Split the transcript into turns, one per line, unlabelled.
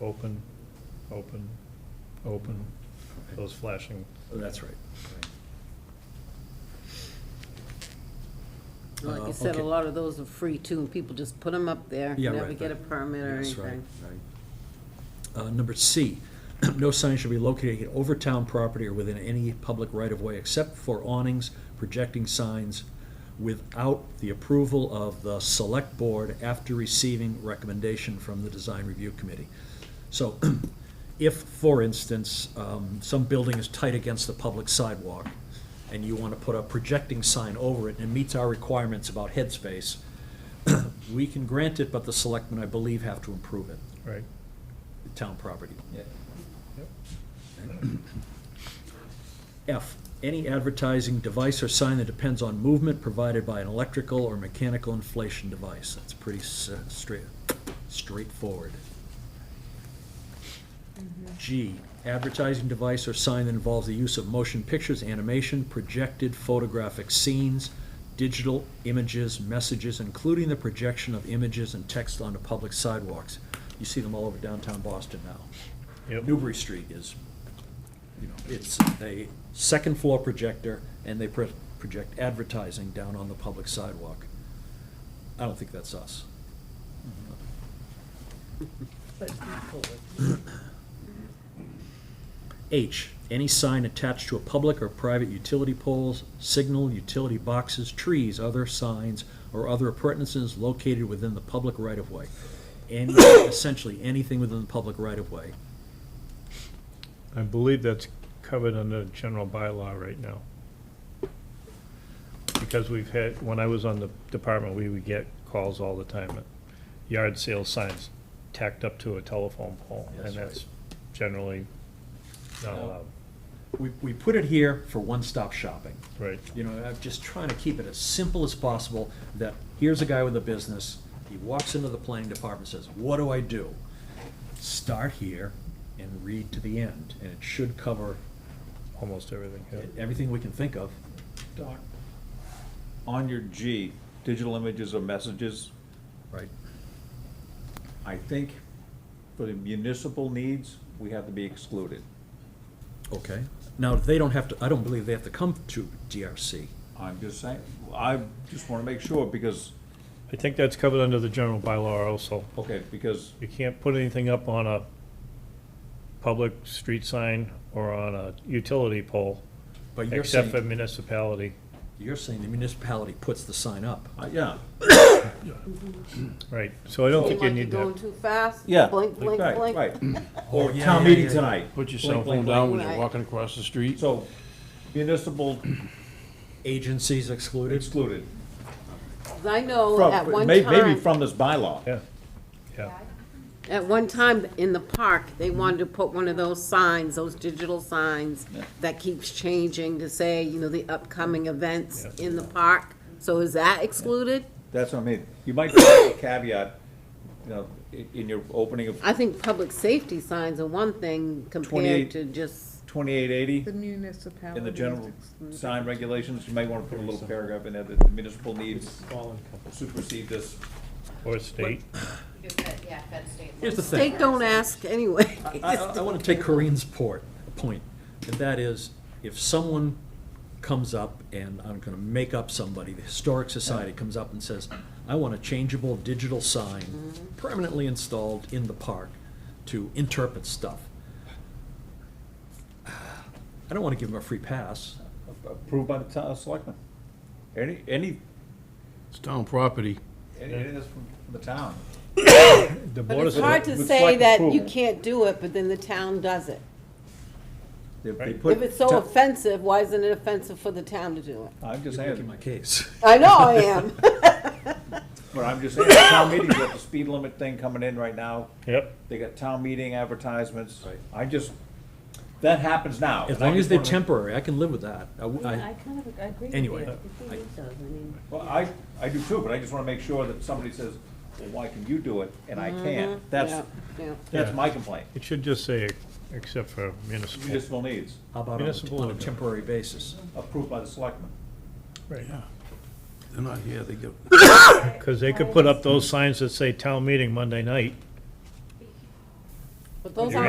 open, open, open, those flashing.
Oh, That's right.
Well, Like
Uh,
you said,
okay.
a lot of those are free too, and people just put them up there,
Yeah,
never
right,
get a
right.
permit or
Yes, right,
anything.
right. Uh, Number C, no sign shall be located over town property or within any public right-of-way except for awnings, projecting signs without the approval of the select board after receiving recommendation from the design review committee. So if, for instance, um, some building is tight against the public sidewalk and you want to put a projecting sign over it and it meets our requirements about headspace, we can grant it, but the selectmen, I believe, have to approve it,
Right.
the town property.
Yep.
F, any advertising device or sign that depends on movement provided by an electrical or mechanical inflation device. That's pretty s- uh, straight, straightforward. G, advertising device or sign that involves the use of motion pictures, animation, projected photographic scenes, digital images, messages, including the projection of images and text onto public sidewalks. You see them all over downtown Boston now.
Yep.
Newbury Street is, you know, it's a second floor projector, and they pro- project advertising down on the public sidewalk. I don't think that's us. H, any sign attached to a public or private utility poles, signal, utility boxes, trees, other signs, or other appurtenances located within the public right-of-way. Any, essentially, anything within the public right-of-way.
I believe that's covered under general bylaw right now. Because we've had, when I was on the department, we would get calls all the time, at yard sale signs tacked up to a telephone pole, and
That's right.
that's generally not
No.
allowed,
we, we put it here for one-stop shopping.
right?
You know, I'm just trying to keep it as simple as possible, that here's a guy with a business, he walks into the planning department, says, what do I do? Start here and read to the end, and it should cover
Almost everything, yeah.
everything we can think of.
Doc, on your G, digital images or messages,
Right.
I think for the municipal needs, we have to be excluded.
Okay. Now, they don't have to, I don't believe they have to come to DRC.
I'm just saying, I just want to make sure because,
I think that's covered under the general bylaw also.
okay, because,
You can't put anything up on a public street sign or on a utility pole,
But you're
except for
saying,
municipality.
you're saying the municipality puts the sign up.
uh, yeah,
Right, so I don't think you
Like
need
Going
to
too fast?
yeah.
Blink, blink,
right,
blink.
Right.
Or
Town meeting tonight.
Put your
Blink,
cell
blink,
phone down
blink.
when you're
Right.
walking across the street.
So municipal
Agencies excluded?
excluded.
'Cause I know at
From,
one
may- maybe
time,
from this bylaw.
Yeah, yeah.
at one time in the park, they wanted to put one of those signs, those digital signs that keeps changing to say, you know, the upcoming events
Yeah.
in the park. So is that excluded?
That's what I mean. You might put a caveat, you know, i- in your opening of
I think public safety signs are one thing compared
28.
to just,
twenty-eight eighty.
The municipality.
In the general
is
sign regulations, you might want to put a little paragraph in there that the municipal needs supersede this.
or state.
Yeah, Fed state.
Here's the thing.
state don't ask anyway.
I, I want to take Corinne's port, point, and that is, if someone comes up, and I'm going to make up somebody, the Historic Society comes up and says, I want a changeable digital sign permanently installed in the park to interpret stuff. I don't want to give them a free pass.
uh, Approved by the town selectmen. Any, any,
It's town property.
any of this from from the town.
The
But
board
it's
is,
hard to
Looks
say
like
that you
approval.
can't do it, but then the town does it.
If they
Right.
put-
If it's so offensive, why isn't it offensive for the town to do it?
I'm just
You're making
saying,
my case.
I know I am.
but I'm just saying, town meetings got the speed limit thing coming in right now.
yep,
They got town meeting advertisements.
Right.
I just, that happens now.
As
and I
long as
just
they're
wanna-
temporary, I can live with that. I w- I-
kind of agree with
Anyway. you.
Well, I, I do too, but I just want to make sure that somebody says, well, why can you do it and I can't?
Mm-hmm. Yeah,
That's,
yeah.
that's
Yeah.
my complaint.
it should just say, except for municipal.
Municipal needs,
How about on a-
Municipal
on a
order.
temporary basis?
approved by the selectmen.
Right,
They're not here, they go.
because they could put up those signs that say town meeting Monday night,
But those
You're
aren't